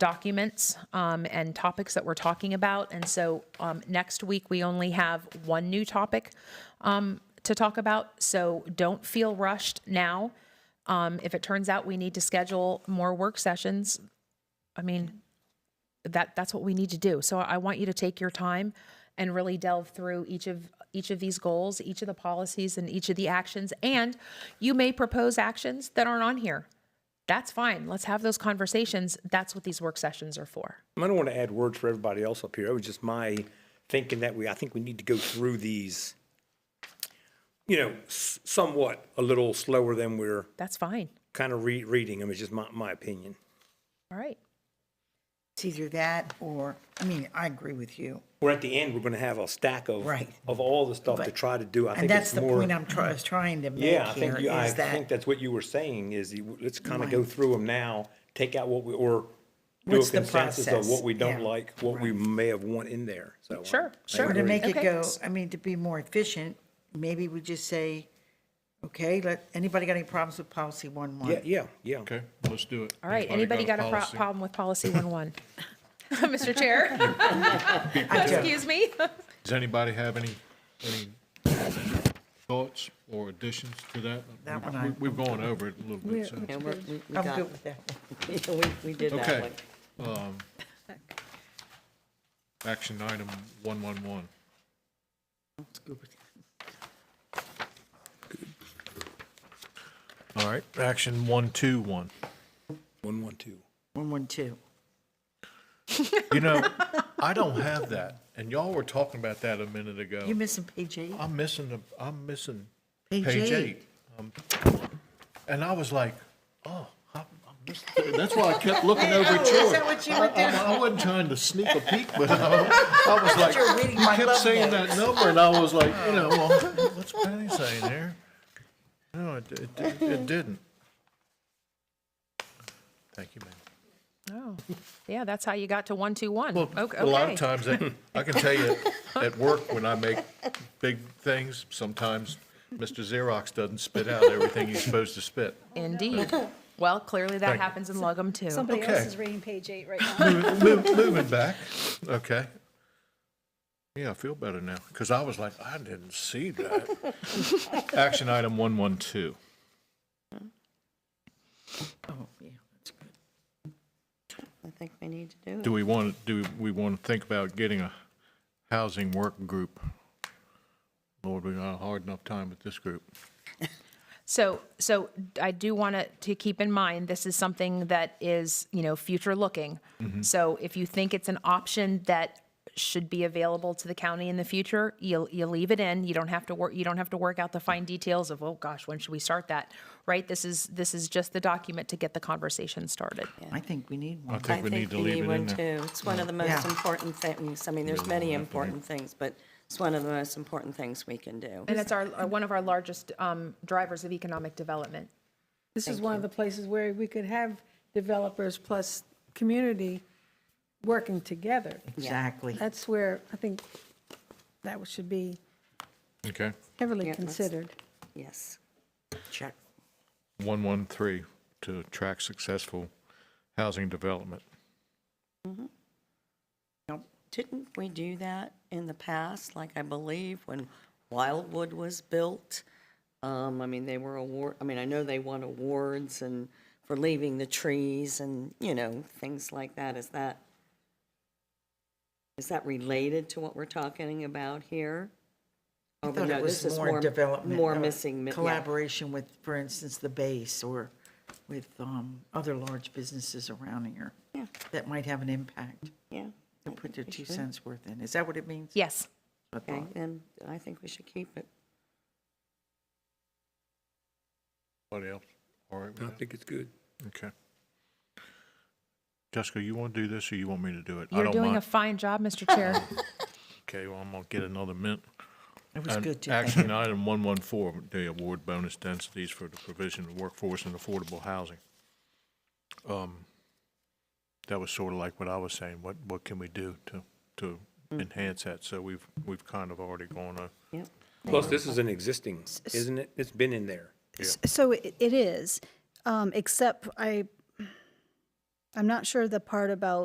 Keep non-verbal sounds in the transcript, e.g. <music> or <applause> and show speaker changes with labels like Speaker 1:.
Speaker 1: documents um, and topics that we're talking about. And so um, next week, we only have one new topic um, to talk about, so don't feel rushed now. Um, If it turns out we need to schedule more work sessions, I mean, that that's what we need to do. So I want you to take your time and really delve through each of each of these goals, each of the policies and each of the actions and you may propose actions that aren't on here. That's fine. Let's have those conversations. That's what these work sessions are for.
Speaker 2: I don't want to add words for everybody else up here. It was just my thinking that we, I think we need to go through these, you know, s- somewhat a little slower than we're
Speaker 1: That's fine.
Speaker 2: kind of re- reading them. It's just my, my opinion.
Speaker 1: All right.
Speaker 3: It's either that or, I mean, I agree with you.
Speaker 2: We're at the end, we're going to have a stack of,
Speaker 3: Right.
Speaker 2: of all the stuff to
Speaker 3: but-
Speaker 2: try to do. I
Speaker 3: And
Speaker 2: think
Speaker 3: that's
Speaker 2: it's
Speaker 3: the
Speaker 2: more.
Speaker 3: point I'm try, is trying to make
Speaker 2: Yeah, I
Speaker 3: here
Speaker 2: think, you- I
Speaker 3: is
Speaker 2: think
Speaker 3: that
Speaker 2: that's what you were saying is you- let's kind of go through them now, take out what we, or do a
Speaker 3: What's the
Speaker 2: consensus of
Speaker 3: process?
Speaker 2: what we don't
Speaker 3: Yeah.
Speaker 2: like, what we may have want in there. So. um,
Speaker 1: Sure,
Speaker 2: I
Speaker 1: sure.
Speaker 3: or to
Speaker 2: agree.
Speaker 3: make it
Speaker 1: Okay.
Speaker 3: go, I mean, to be more efficient, maybe we just say, okay, let, anybody got any problems with policy one
Speaker 2: Yeah,
Speaker 3: one?
Speaker 2: yeah, yeah.
Speaker 4: Okay, let's do it.
Speaker 1: All right. Anybody got a pro-
Speaker 4: policy?
Speaker 1: problem with policy <laughs> 11? Mr.
Speaker 4: <laughs>
Speaker 1: Chair,
Speaker 3: I do.
Speaker 1: excuse me. <laughs>
Speaker 4: Does anybody have any, any thoughts or additions to that?
Speaker 3: That one
Speaker 4: We-
Speaker 3: I-
Speaker 4: We've gone over it a little bit, so.
Speaker 5: Yeah, we're- we, we
Speaker 3: I'm
Speaker 5: got,
Speaker 3: good with that.
Speaker 5: yeah, <laughs> we, we did that
Speaker 4: Okay.
Speaker 5: one.
Speaker 4: um, Action item 111. All right, action 121.
Speaker 2: One, one, two.
Speaker 3: One one two.
Speaker 4: You know, I don't have that, and y'all were talking about that a minute ago.
Speaker 3: You missing page eight?
Speaker 4: I'm missing, the- I'm missing
Speaker 3: Page
Speaker 4: page
Speaker 3: eight.
Speaker 4: eight. Um, And I was like, oh, I I missed it. that's why I kept looking over at
Speaker 3: Is
Speaker 4: you.
Speaker 3: that what you were
Speaker 4: I-
Speaker 3: doing?
Speaker 4: I wasn't trying to sneak a peek, but I I was like,
Speaker 3: You're reading my
Speaker 4: you kept
Speaker 3: love
Speaker 4: saying that number, and I was like, you know, well, what's Penny saying there? No, it, it, it- it didn't. Thank you, man.
Speaker 1: Oh, yeah, that's how you got to 121.
Speaker 4: Well,
Speaker 1: Ok-
Speaker 4: a lot of
Speaker 1: okay.
Speaker 4: times, I- I can tell you, at work, when I make big things, sometimes Mr. Xerox doesn't spit out everything he's supposed to spit.
Speaker 1: Indeed. Well, clearly that
Speaker 4: Thank you.
Speaker 1: happens in Lugum too.
Speaker 6: Somebody
Speaker 4: Okay.
Speaker 6: else is reading page
Speaker 4: <laughs>
Speaker 6: eight right now.
Speaker 4: Mo- mo- Moving back, okay. Yeah, I feel better now, because I was like, I didn't see that. Action item 112.
Speaker 3: Oh, yeah, that's good.
Speaker 5: I think we need to do
Speaker 4: Do we want, do we want to think about getting a housing work group? Lord, we got a hard enough time with this group.
Speaker 1: So, so I do want to, to keep in mind, this is something that is, you know, future looking.
Speaker 4: Mm-hmm.
Speaker 1: So if you think it's an option that should be available to the county in the future, you, you leave it in. You don't have to work, you don't have to work out the fine details of, oh gosh, when should we start that? Right? This is, this is just the document to get the conversation started.
Speaker 3: I think we need
Speaker 4: I
Speaker 3: one.
Speaker 5: it.
Speaker 4: think we need to leave it
Speaker 5: one
Speaker 4: in there.
Speaker 5: too. It's one of the most
Speaker 3: Yeah.
Speaker 5: important things. I mean, there's many important things, but it's one of the most important things we can do.
Speaker 1: And it's our, our- one of our largest um, drivers of economic development.
Speaker 6: This is one of the places where we could have developers plus community working together.
Speaker 3: Exactly.
Speaker 6: That's where I think that should be
Speaker 4: Okay,
Speaker 6: heavily
Speaker 5: Yeah, that's-
Speaker 6: considered.
Speaker 5: Yes.
Speaker 3: Check.
Speaker 4: 113, to attract successful housing development.
Speaker 5: Didn't we do that in the past? Like, I believe when Wildwood was built, um, I mean, they were award, I mean, I know they won awards and for leaving the trees and, you know, things like that. Is that, is that related to what we're talking about here?
Speaker 3: I
Speaker 5: Oh,
Speaker 3: thought
Speaker 5: no,
Speaker 3: it
Speaker 5: this
Speaker 3: was
Speaker 5: is
Speaker 3: more development. uh,
Speaker 5: More
Speaker 3: or
Speaker 5: missing, mi- yeah.
Speaker 3: Collaboration with, for instance, the base or with um, other large businesses around here
Speaker 5: Yeah,
Speaker 3: that might have an impact
Speaker 5: yeah.
Speaker 3: to
Speaker 5: I
Speaker 3: put
Speaker 5: think
Speaker 3: their
Speaker 5: we
Speaker 3: two
Speaker 5: should.
Speaker 3: cents worth in. Is that what it means?
Speaker 1: Yes.
Speaker 3: I
Speaker 5: Okay,
Speaker 3: thought.
Speaker 5: then I think we should keep it.
Speaker 4: Anybody else? All right with
Speaker 2: I
Speaker 4: that?
Speaker 2: think it's good.
Speaker 4: Okay. Jessica, you want to do this or you want me to do it? I
Speaker 1: You're
Speaker 4: don't
Speaker 1: doing a
Speaker 4: mind.
Speaker 1: fine job, Mr.
Speaker 4: <laughs>
Speaker 1: Chair.
Speaker 4: Okay, well, I'm gonna get another mint.
Speaker 3: It was
Speaker 4: And
Speaker 3: good to think.
Speaker 4: Action item one one four, the award bonus densities for the provision of workforce and affordable housing. Um, That was sort of like what I was saying, what, what can we do to, to
Speaker 1: Mm-hmm.
Speaker 4: enhance that? So we've, we've kind of already gone over.
Speaker 5: Yep.
Speaker 2: Plus, this is an existing, isn't it? It's been in there.
Speaker 6: S- So it it is, um, except I,
Speaker 7: I'm not sure the part about